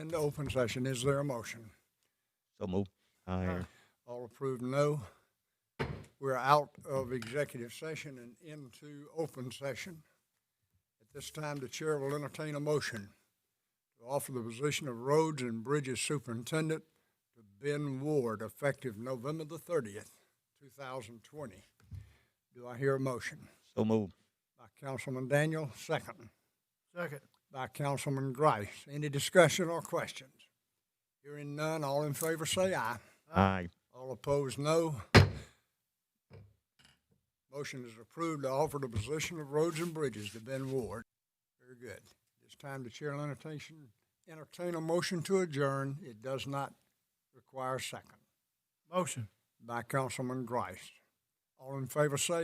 into open session. Is there a motion? So move. Higher. All approved, no. We're out of executive session and into open session. At this time, the chair will entertain a motion to offer the position of roads and bridges superintendent to Ben Ward effective November the thirtieth, two thousand twenty. Do I hear a motion? So move. By Councilman Daniel, second. Second. by Councilman Grice. Any discussion or questions? Hearing none, all in favor say aye. Aye. All opposed, no. Motion is approved to offer the position of Roads and Bridges to Ben Ward. Very good. It's time to chair will entertain, entertain a motion to adjourn. It does not require a second. Motion. By Councilman Grice. All in favor say